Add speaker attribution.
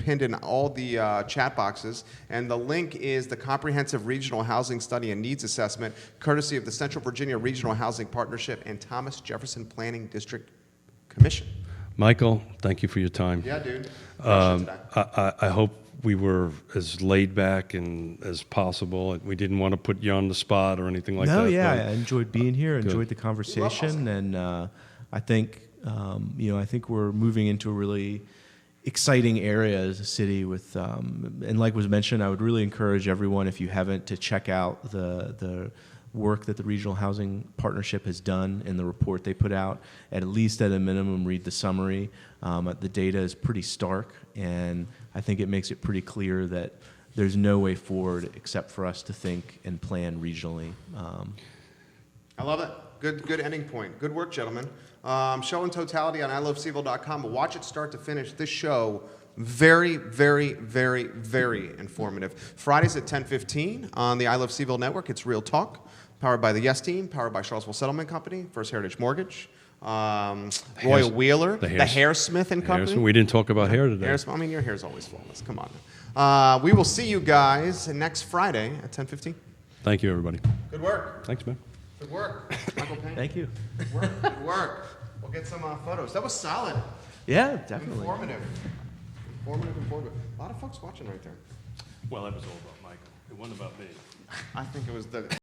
Speaker 1: pinned in all the uh, chat boxes. And the link is the Comprehensive Regional Housing Study and Needs Assessment, courtesy of the Central Virginia Regional Housing Partnership and Thomas Jefferson Planning District Commission.
Speaker 2: Michael, thank you for your time.
Speaker 1: Yeah, dude.
Speaker 2: Um, I, I, I hope we were as laid back and as possible. We didn't want to put you on the spot or anything like
Speaker 3: no,
Speaker 2: that.
Speaker 3: yeah,
Speaker 2: but-
Speaker 3: I enjoyed being here. Enjoyed the conversation, and uh, I think um, you know, I think we're moving into a really exciting area as a city. With um, and like was mentioned, I would really encourage everyone if you haven't to check out the the work that the regional housing partnership has done and the report they put out at least at a minimum read the summary um, the data is pretty stark and i think it makes it pretty clear that there's no way forward except for us to think and plan regionally. Um,
Speaker 1: I love it. Good, good ending point. Good work, gentlemen. Um, show in totality on iloveseville.com. But watch it start to finish. This show very, very, very, very informative. Fridays at 10:15 on the I Love Seville network. It's Real Talk, powered by the Yes Team, powered by Charlesville Settlement Company, First Heritage Mortgage, um, Royal
Speaker 2: Hairs-
Speaker 1: Wheeler, the,
Speaker 2: the Hairs-
Speaker 1: Hairsmith and Company.
Speaker 2: Harrison, we didn't talk about hair today.
Speaker 1: Hairs- I mean, your hair's always flawless. Come on. Uh, we will see you guys next Friday at 10:15.
Speaker 2: Thank you, everybody.
Speaker 1: Good work.
Speaker 2: Thanks, man.
Speaker 1: Good work, Michael Payne.
Speaker 3: thank you.
Speaker 1: Good work. Good work. We'll get some uh, photos. That was solid.
Speaker 3: Yeah, definitely.
Speaker 1: Informative. Informative, informative. A lot of folks watching right there.
Speaker 2: Well, that was all about Michael. It wasn't about me.
Speaker 1: I think it was the.